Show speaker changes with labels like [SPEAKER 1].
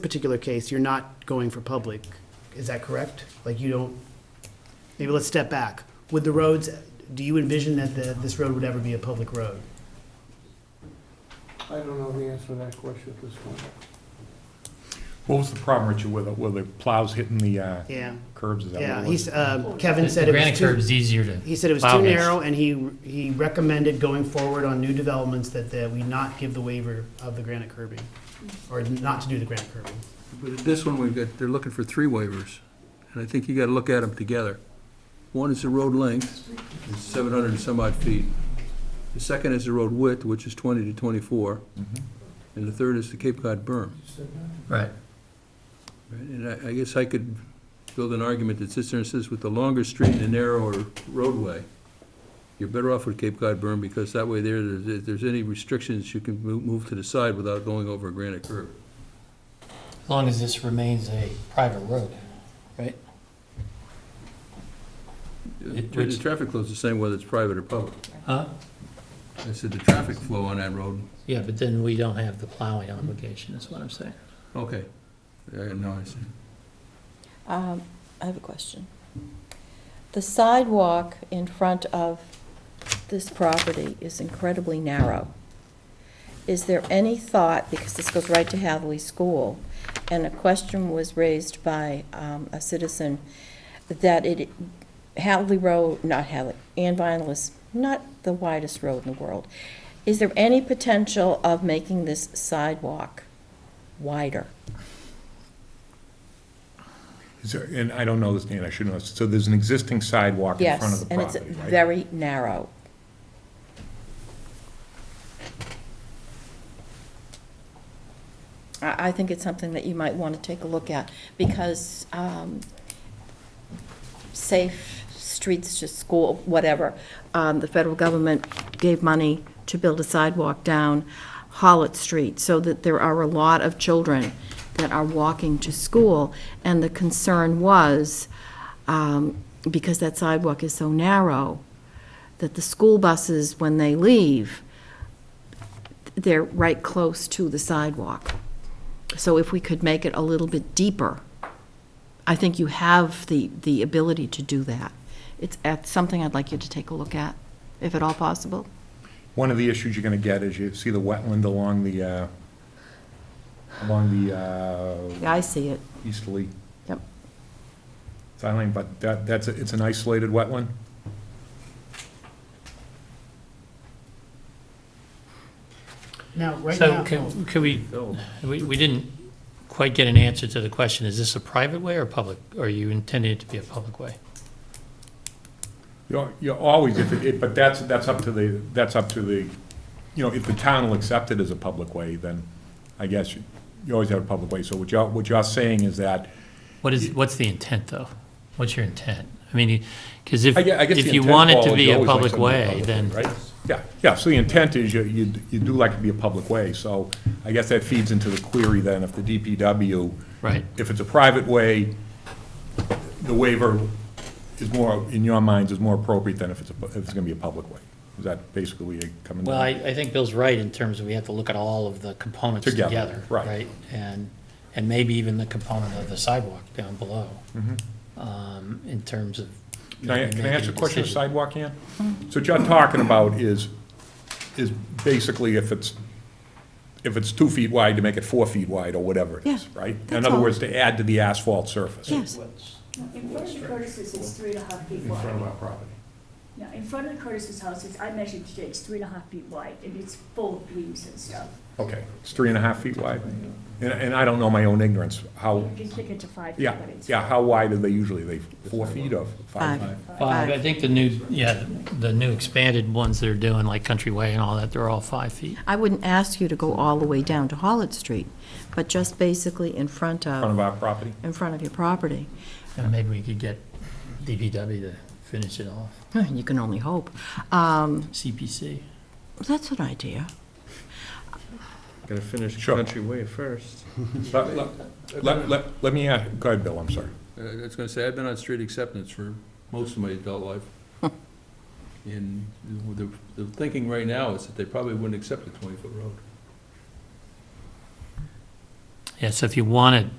[SPEAKER 1] particular case, you're not going for public, is that correct? Like you don't, maybe let's step back. Would the roads, do you envision that the, this road would ever be a public road?
[SPEAKER 2] I don't know the answer to that question at this point.
[SPEAKER 3] What was the problem, Richard, with, the- with the plows hitting the uh,
[SPEAKER 1] Yeah,
[SPEAKER 3] curbs? Is that what it
[SPEAKER 1] yeah,
[SPEAKER 3] was?
[SPEAKER 1] he's, uh, Kevin
[SPEAKER 4] The-
[SPEAKER 1] said
[SPEAKER 4] the
[SPEAKER 1] it was
[SPEAKER 4] granite
[SPEAKER 1] too,
[SPEAKER 4] curb's easier to,
[SPEAKER 1] he said it was
[SPEAKER 4] plow
[SPEAKER 1] too
[SPEAKER 4] mix.
[SPEAKER 1] narrow, and he, he recommended going forward on new developments that, that we not give the waiver of the granite curbing, or not to do the granite curbing.
[SPEAKER 5] But this one, we've got, they're looking for three waivers, and I think you gotta look at them together. One is the road length, is seven hundred and some odd feet. The second is the road width, which is twenty to twenty-four,
[SPEAKER 3] Mhm.
[SPEAKER 5] and the third is the Cape Cod berm.
[SPEAKER 4] right.
[SPEAKER 5] Right, And I, I guess I could build an argument that sits there and says, with the longer street and the narrower roadway, you're better off with Cape Cod berm, because that way there, there's, if there's any restrictions, you can move, move to the side without going over a granite curb.
[SPEAKER 4] As long as this remains a private road.
[SPEAKER 5] The
[SPEAKER 4] It-
[SPEAKER 5] the
[SPEAKER 4] which-
[SPEAKER 5] traffic flow's the same whether it's private or public.
[SPEAKER 4] Huh?
[SPEAKER 5] I said the traffic flow on that road.
[SPEAKER 4] Yeah, but then we don't have the plowing obligation, is what I'm saying.
[SPEAKER 5] Okay. Yeah, no, I see.
[SPEAKER 6] Um, I have a question. The sidewalk in front of this property is incredibly narrow. Is there any thought, because this goes right to Hathaway School, and a question was raised by um, a citizen, that it, Hathaway Road, not Hathaway, Ann Vinyl is not the widest road in the world. Is there any potential of making this sidewalk wider?
[SPEAKER 3] Is there- And I don't know this, Dan, I should know. this. So there's an existing sidewalk in front of
[SPEAKER 6] Yes,
[SPEAKER 3] the
[SPEAKER 6] and it's
[SPEAKER 3] property, right?
[SPEAKER 6] very narrow. I, I think it's something that you might want to take a look at, because um, safe streets to school, whatever, um, the federal government gave money to build a sidewalk down Hollitt Street, so that there are a lot of children that are walking to school, and the concern was, um, because that sidewalk is so narrow, that the school buses, when they leave, they're right close to the sidewalk. So if we could make it a little bit deeper, I think you have the, the ability to do that. It's, it's something I'd like you to take a look at, if at all possible.
[SPEAKER 3] One of the issues you're gonna get is you see the wetland along the, uh, along the uh,
[SPEAKER 6] I see it.
[SPEAKER 3] easterly
[SPEAKER 6] Yep.
[SPEAKER 3] side lane, but that, that's, a- it's an isolated wetland?
[SPEAKER 1] Now, right
[SPEAKER 4] So
[SPEAKER 1] now,
[SPEAKER 4] can, could we, we, we didn't quite get an answer to the question, is this a private way or public? Are you intending it to be a public way?
[SPEAKER 3] You're, you're always, if it- it, but that's, that's up to the, that's up to the, you know, if the town will accept it as a public way, then I guess you you always have a public way. So what you're, what you're saying is that
[SPEAKER 4] What is, what's the intent, though? What's your intent? I mean, because if,
[SPEAKER 3] I gue- I guess
[SPEAKER 4] if
[SPEAKER 3] the
[SPEAKER 4] you
[SPEAKER 3] intent,
[SPEAKER 4] want it
[SPEAKER 3] Paul,
[SPEAKER 4] to
[SPEAKER 3] is
[SPEAKER 4] be
[SPEAKER 3] you
[SPEAKER 4] a
[SPEAKER 3] always like
[SPEAKER 4] public
[SPEAKER 3] something to be
[SPEAKER 4] way, then,
[SPEAKER 3] right? Yeah, yeah, so the intent is you, you, you do like it to be a public way, so I guess that feeds into the query then, if the DPW,
[SPEAKER 4] right,
[SPEAKER 3] if it's a private way, the waiver is more, in your minds, is more appropriate than if it's, a pu- if it's gonna be a public way. Is that basically where you're coming down?
[SPEAKER 4] Well, I, I think Bill's right in terms of we have to look at all of the components
[SPEAKER 3] Together,
[SPEAKER 4] together,
[SPEAKER 3] right.
[SPEAKER 4] right? And, and maybe even the component of the sidewalk down below. um, In terms of.
[SPEAKER 3] Mm-hmm. Can I, can I ask a
[SPEAKER 4] making
[SPEAKER 3] question of
[SPEAKER 4] decision.
[SPEAKER 3] sidewalk, Ann? So what you're talking about is, is basically if it's, if it's two feet wide, to make it four feet wide or whatever it is,
[SPEAKER 6] Yeah,
[SPEAKER 3] right? In
[SPEAKER 6] that's
[SPEAKER 3] other
[SPEAKER 6] all.
[SPEAKER 3] words, to add to the asphalt surface.
[SPEAKER 6] Yes.
[SPEAKER 7] In front of the Curtis's, it's three and a half feet
[SPEAKER 3] In front of
[SPEAKER 7] wide.
[SPEAKER 3] our property.
[SPEAKER 7] Yeah, in front of the Curtis's house, it's, I measured today, it's three and a half feet wide, and it's full of leaves and stuff.
[SPEAKER 3] Okay, it's three and a half feet wide? And, and I don't know my own ignorance, how,
[SPEAKER 7] You can pick it to five feet,
[SPEAKER 3] yeah,
[SPEAKER 7] but it's.
[SPEAKER 3] yeah, how wide are they usually? They four feet or five?
[SPEAKER 6] Five.
[SPEAKER 4] Five, I think the new, yeah, the new expanded ones they're doing, like Countryway and all that, they're all five feet.
[SPEAKER 6] I wouldn't ask you to go all the way down to Hollitt Street, but just basically in front
[SPEAKER 3] In front
[SPEAKER 6] of,
[SPEAKER 3] of our property?
[SPEAKER 6] in front of your property.
[SPEAKER 4] And maybe we could get DPW to finish it off,
[SPEAKER 6] You can only hope. Um,
[SPEAKER 4] CPC.
[SPEAKER 6] That's an idea.
[SPEAKER 2] Gotta finish
[SPEAKER 3] Sure.
[SPEAKER 2] Country Way first.
[SPEAKER 3] Let, let- let, let, let me, ask- go ahead, Bill, I'm sorry.
[SPEAKER 5] Uh, I was gonna say, I've been on street acceptance for most of my adult life. And the, the thinking right now is that they probably wouldn't accept a twenty-foot road.
[SPEAKER 4] Yeah, so if you want to